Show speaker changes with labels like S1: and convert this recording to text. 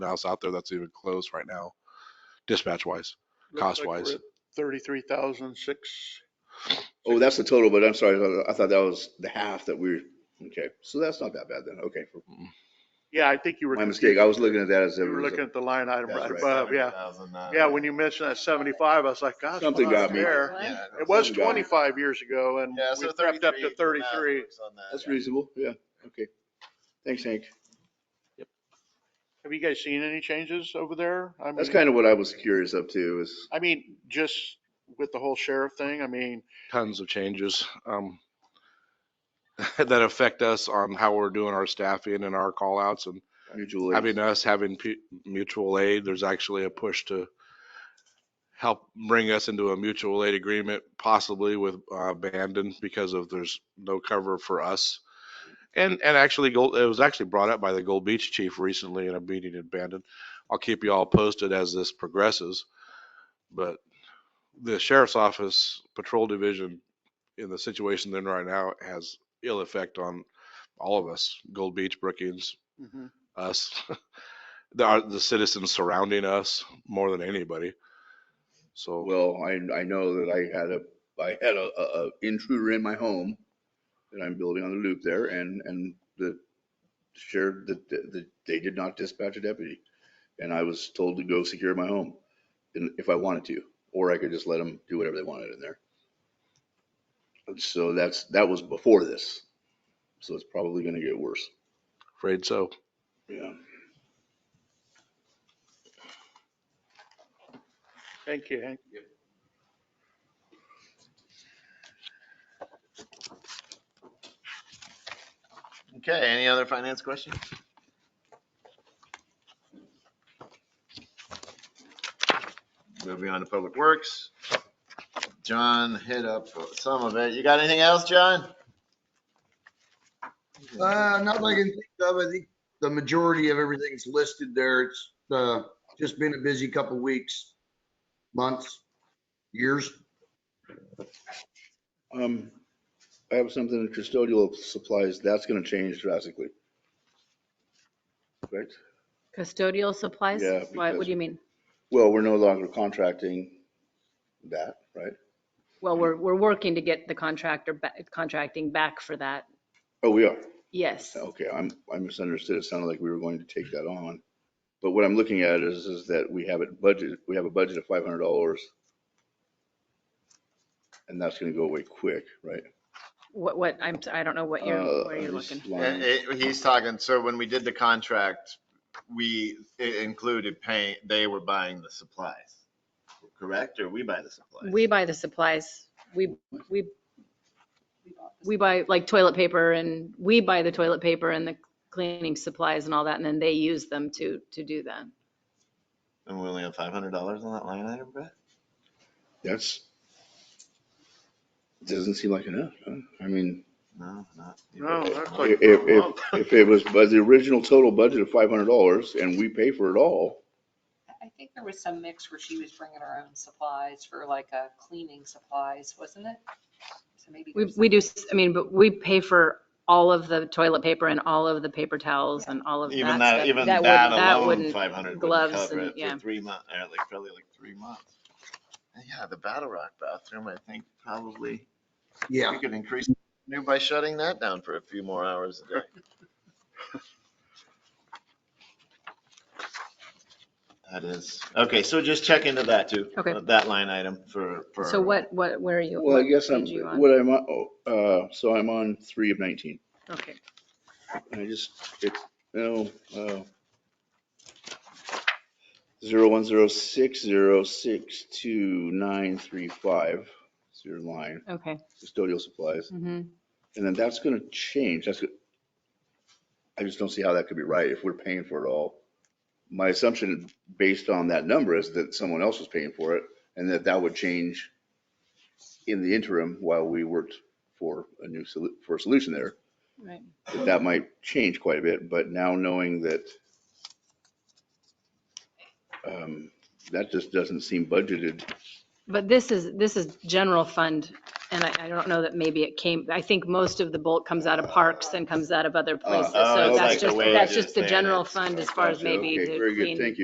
S1: else out there that's even close right now, dispatch wise. Cost wise.
S2: Thirty-three thousand six.
S3: Oh, that's the total, but I'm sorry, I- I thought that was the half that we, okay, so that's not that bad then, okay.
S2: Yeah, I think you were.
S3: My mistake, I was looking at that as. it
S2: You were
S3: was a-
S2: looking at the line item
S3: That's
S2: right
S3: right.
S2: above, yeah.
S4: uh,
S2: Yeah, when you mentioned that seventy-five, I was like, gosh.
S3: Something
S2: wow,
S3: got me.
S2: there. It was
S3: Something got me.
S2: twenty-five years ago and
S4: Yeah,
S2: we
S4: so
S2: stepped up to thirty-three.
S3: That's reasonable, yeah, okay. Thanks, Hank.
S2: Have you guys seen any changes over there? I
S3: That's
S2: mean-
S3: kind of what I was curious up to is,
S2: I mean, just with the whole sheriff thing, I mean,
S1: tons of changes um, that affect us on how we're doing our staffing and our call outs and
S3: mutual aid.
S1: having us having pu- mutual aid. There's actually a push to help bring us into a mutual aid agreement, possibly with uh, Bandon because of there's no cover for us. And, and actually, Gold, it was actually brought up by the Gold Beach chief recently in a meeting in Bandon. I'll keep you all posted as this progresses. But the sheriff's office patrol division in the situation then right now has ill effect on all of us, Gold Beach, Brookings,
S4: Mm-hmm.
S1: us, the, our- the citizens surrounding us more than anybody. So
S3: Well, I, I know that I had a, I had a, a a intruder in my home that I'm building on the loop there and, and the sheriff, the, the, they did not dispatch a deputy. And I was told to go secure my home and if I wanted to, or I could just let them do whatever they wanted in there. And so that's, that was before this. So it's probably gonna get worse.
S1: afraid so.
S3: Yeah.
S2: thank you, Hank.
S4: Okay, any other finance questions? Moving on to Public Works. John hit up some of it. You got anything else, John?
S5: Uh, not that I can think of. I think the majority of everything's listed there. It's, uh, just been a busy couple weeks, months, years.
S3: Um, I have something in custodial supplies. That's gonna change drastically. Right?
S6: Custodial supplies?
S3: Yeah,
S6: Why,
S3: because-
S6: what do you mean?
S3: Well, we're no longer contracting that, right?
S6: Well, we're, we're working to get the contractor, ba- contracting back for that.
S3: Oh, we are.
S6: Yes.
S3: Okay, I'm, I misunderstood. It sounded like we were going to take that on. But what I'm looking at is, is that we have it budgeted, we have a budget of five hundred dollars. And that's gonna go away quick, right?
S6: What, what, I'm, I don't know what you're,
S3: Uh,
S6: where you're
S3: this
S6: looking.
S4: Yeah,
S3: line-
S4: it- Eh, He's talking, so when we did the contract, we it included paying, they were buying the supplies, correct? Or we buy the supplies?
S6: We buy the supplies. We, we, we buy like toilet paper and we buy the toilet paper and the cleaning supplies and all that. And then they use them to, to do that.
S4: And we only have five hundred dollars on that line item, Brett?
S3: That's. Doesn't seem like enough, huh? I mean,
S4: No, not. even.
S2: No, that's like.
S3: if, if,
S2: a month.
S3: if- if it was, but the original total budget of five hundred dollars and we pay for it all,
S7: I think there was some mix where she was bringing her own supplies for like uh, cleaning supplies, wasn't it? So maybe.
S6: We,
S7: there's
S6: we do, s- I mean, but we pay for all of the toilet paper and all of the paper towels and all of that.
S4: Even
S6: stuff.
S4: that, even
S6: would-
S4: that alone,
S6: wouldn't-
S4: five hundred wouldn't
S6: gloves
S4: cover
S6: and-
S4: it for
S6: yeah.
S4: three months, or like, probably like three months. And Yeah, the Battle Rock bathroom, I think probably,
S5: Yeah.
S4: we could increase revenue by shutting that down for a few more hours a day. That is, okay, so just check into that too. uh,
S6: Okay.
S4: That line item for, for.
S6: So what, what, where are you?
S3: well, I
S6: what
S3: guess I'm,
S6: page you on?
S3: what I'm, on- oh, uh, so I'm on three of nineteen.
S6: Okay.
S3: I just, it's, no, uh, zero one zero six zero six two nine three five, it's your line,
S6: Okay.
S3: custodial supplies.
S6: Mhm.
S3: And then that's gonna change, that's, go- I just don't see how that could be right if we're paying for it all. My assumption based on that number is that someone else was paying for it and that that would change in the interim while we worked for a new, solu- for a solution there
S6: Right.
S3: that that might change quite a bit, but now knowing that um, that just doesn't seem budgeted.
S6: But this is, this is general fund And I, I don't know that maybe it came, I think most of the bulk comes out of parks and comes out of other places.
S4: oh,
S6: So
S4: it's
S6: that's
S4: like the
S6: just,
S4: way
S6: that's
S4: it is
S6: just the
S4: there.
S6: general
S4: It's-
S6: fund as far as
S3: Gotcha.
S6: maybe
S3: Okay,
S6: to
S3: Very good,
S6: clean
S3: thank you.